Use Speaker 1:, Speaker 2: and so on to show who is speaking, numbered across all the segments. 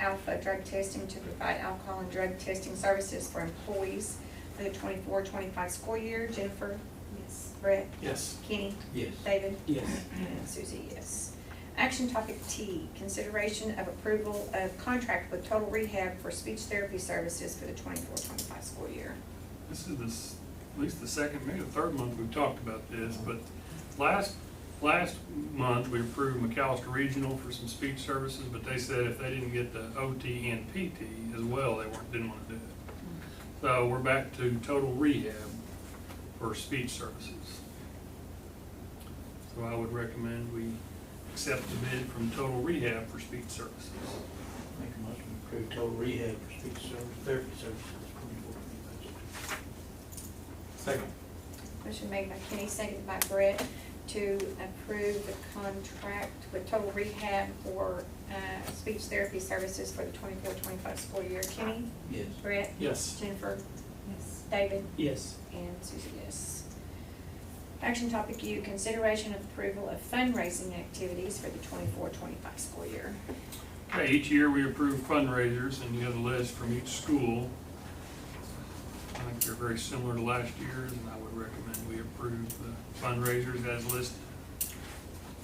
Speaker 1: Alpha Drug Testing to provide alcohol and drug testing services for employees for the 24-25 school year. Jennifer? Yes. Brett?
Speaker 2: Yes.
Speaker 1: Kenny?
Speaker 2: Yes.
Speaker 1: David?
Speaker 2: Yes.
Speaker 1: And Susie, yes. Action topic T, consideration of approval of contract with Total Rehab for speech therapy services for the 24-25 school year.
Speaker 3: This is the, s- at least the second, maybe the third month we've talked about this, but last, last month, we approved McAllister Regional for some speech services, but they said if they didn't get the OT and PT as well, they weren't, didn't want to do it. So we're back to total rehab for speech services. So I would recommend we accept the bid from Total Rehab for speech services.
Speaker 2: Make a motion to approve total rehab for speech service, therapy services, twenty-four, twenty-five. Second.
Speaker 1: Motion made by Kenny, seconded by Brett, to approve the contract with Total Rehab for uh, speech therapy services for the 24-25 school year. Kenny?
Speaker 2: Yes.
Speaker 1: Brett?
Speaker 2: Yes.
Speaker 1: Jennifer? David?
Speaker 2: Yes.
Speaker 1: And Susie, yes. Action topic U, consideration of approval of fundraising activities for the 24-25 school year.
Speaker 3: Okay, each year we approve fundraisers and you have a list from each school. I think they're very similar to last year's and I would recommend we approve the fundraisers as listed.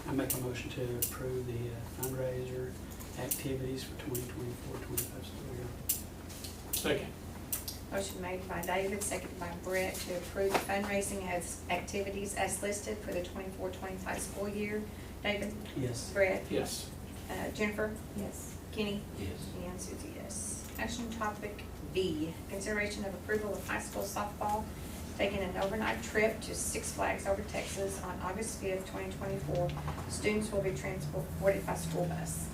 Speaker 4: I make a motion to approve the uh, fundraiser activities for 2024-25 school year.
Speaker 2: Second.
Speaker 1: Motion made by David, seconded by Brett, to approve fundraising as, activities as listed for the 24-25 school year. David?
Speaker 4: Yes.
Speaker 1: Brett?
Speaker 2: Yes.
Speaker 1: Uh, Jennifer? Yes. Kenny?
Speaker 2: Yes.
Speaker 1: And Susie, yes. Action topic B, consideration of approval of high school softball taking an overnight trip to Six Flags over Texas on August fifth, twenty twenty-four. Students will be transported by school bus.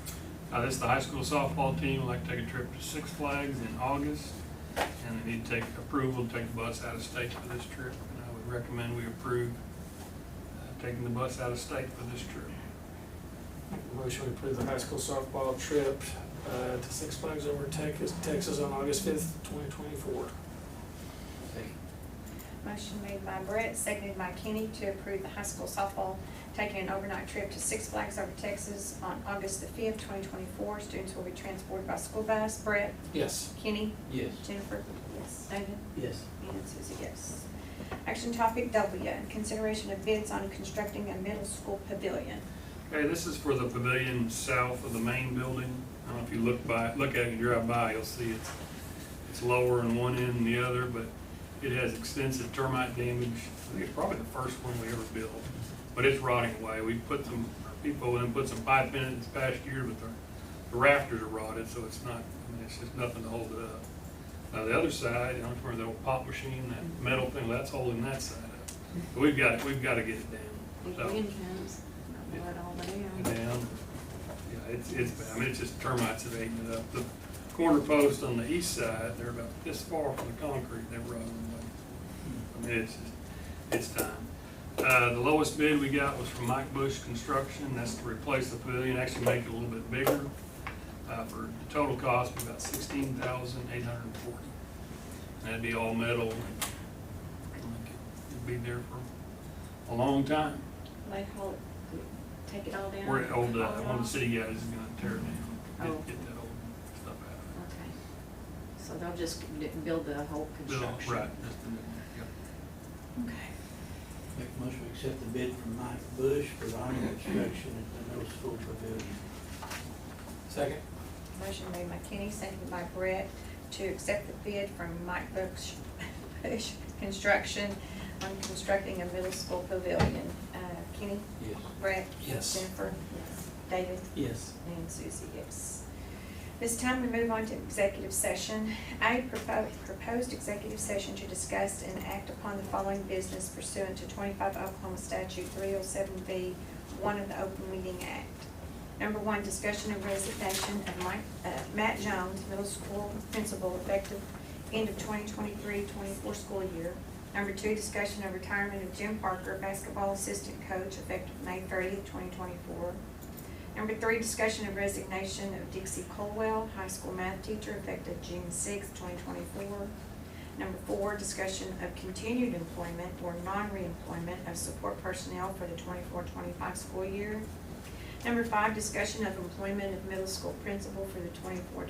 Speaker 3: Uh, this is the high school softball team, would like to take a trip to Six Flags in August. And they need to take approval to take the bus out of state for this trip. And I would recommend we approve uh, taking the bus out of state for this trip.
Speaker 5: Make a Motion to approve the high school softball trip uh, to Six Flags over Texas, Texas on August fifth, twenty twenty-four.
Speaker 2: Second.
Speaker 1: Motion made by Brett, seconded by Kenny to approve the high school softball taking an overnight trip to Six Flags over Texas on August the fifth, twenty twenty-four. Students will be transported by school bus. Brett,
Speaker 5: Yes.
Speaker 1: Kenny,
Speaker 2: Yes.
Speaker 1: Jennifer. Yes. David.
Speaker 4: Yes.
Speaker 1: And Susie, yes. Action topic W, consideration of bids on constructing a middle school pavilion.
Speaker 3: Okay, this is for the pavilion south of the main building. I don't know if you look by, look at it and drive by, you'll see it's, it's lower in one end than the other, but it has extensive termite damage. I think it's probably the first one we ever built, but it's rotting away. We put some, our people in, put some pipe in it this past year, but the the rafters are rotted, so it's not, I mean, it's just nothing to hold it up. Now, the other side, I don't know where the old pop machine, that metal thing, that's holding that side up. But we've got, we've got to get it down,
Speaker 6: If
Speaker 3: so.
Speaker 6: wind comes, I'll blow it all
Speaker 3: And
Speaker 6: down.
Speaker 3: down. Yeah, it's, it's, bad. I mean, it's just termites that ate it up. The corner posts on the east side, they're about this far from the concrete, they were on I mean, it's, just- it's time. Uh, the lowest bid we got was from Mike Bush Construction, that's to replace the pavilion, actually make it a little bit bigger. Uh, for the total cost, of about sixteen thousand eight hundred and forty. And that'd be all metal. It'd be there for a long time.
Speaker 6: They haul it, take it all down.
Speaker 3: Where it old, uh,
Speaker 6: haul it
Speaker 3: one of
Speaker 6: off?
Speaker 3: the city guys is gonna tear it down,
Speaker 6: Oh.
Speaker 3: get, get that old stuff out.
Speaker 6: Okay. So they'll just d- build the whole
Speaker 3: Build it,
Speaker 6: construction.
Speaker 3: Right, that's the new one, yep.
Speaker 6: Okay.
Speaker 2: Make a motion to accept the bid from Mike Bush for the awning construction at the middle school pavilion.
Speaker 5: Second?
Speaker 1: Motion made by Kenny, seconded by Brett, to accept the bid from Mike Bush, Bush Construction on constructing a middle school pavilion. Uh, Kenny,
Speaker 2: Yes.
Speaker 1: Brett,
Speaker 5: Yes.
Speaker 1: Jennifer, David,
Speaker 4: Yes.
Speaker 1: and Susie, yes. This time we move on to executive session. A, propo- proposed executive session to discuss and act upon the following business pursuant to twenty-five Oklahoma statute three oh seven B, one of the Open Meeting Act. Number one, discussion of resignation of Mike, uh, Matt Jones, middle school principal, effective end of 2023-24 school year. Number two, discussion of retirement of Jim Parker, basketball assistant coach, effective May thirtieth, twenty twenty-four. Number three, discussion of resignation of Dixie Colwell, high school math teacher, effective June sixth, twenty twenty-four. Number four, discussion of continued employment or non-reemployment of support personnel for the 24-25 school year. Number five, discussion of employment of middle school principal for the 24-25